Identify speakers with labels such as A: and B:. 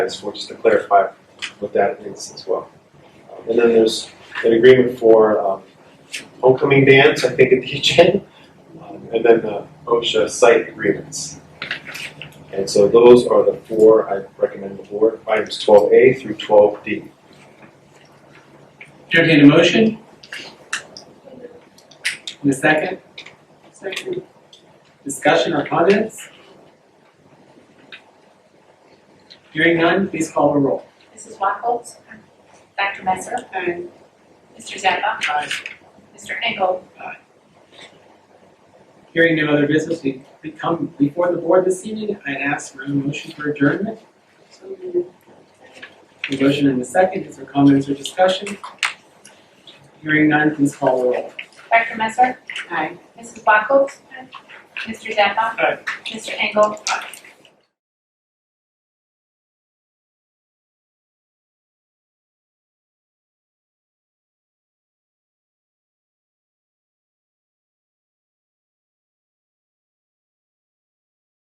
A: So just to clarify what that is as well. Um, And then there's an agreement for um, homecoming dance, I think, at the gym, um, and then the OSHA site agreements. And so those are the four I recommend the board, items twelve A through twelve D.
B: Entertain a motion? In a second? Second. Discussion or comments? Hearing none, please call the roll.
C: Mrs. Wackels? Dr. Messer?
D: Aye.
C: Mr. Zappa? Mr. Engel?
B: Hearing no other business, we we come before the board this evening, I'd ask for a motion for adjournment.
D: So moved.
B: A motion in a second, is there comments or discussion? Hearing none, please call the roll.
C: Dr. Messer?
D: Aye.
C: Mrs. Wackels? Mr. Zappa? Mr. Engel?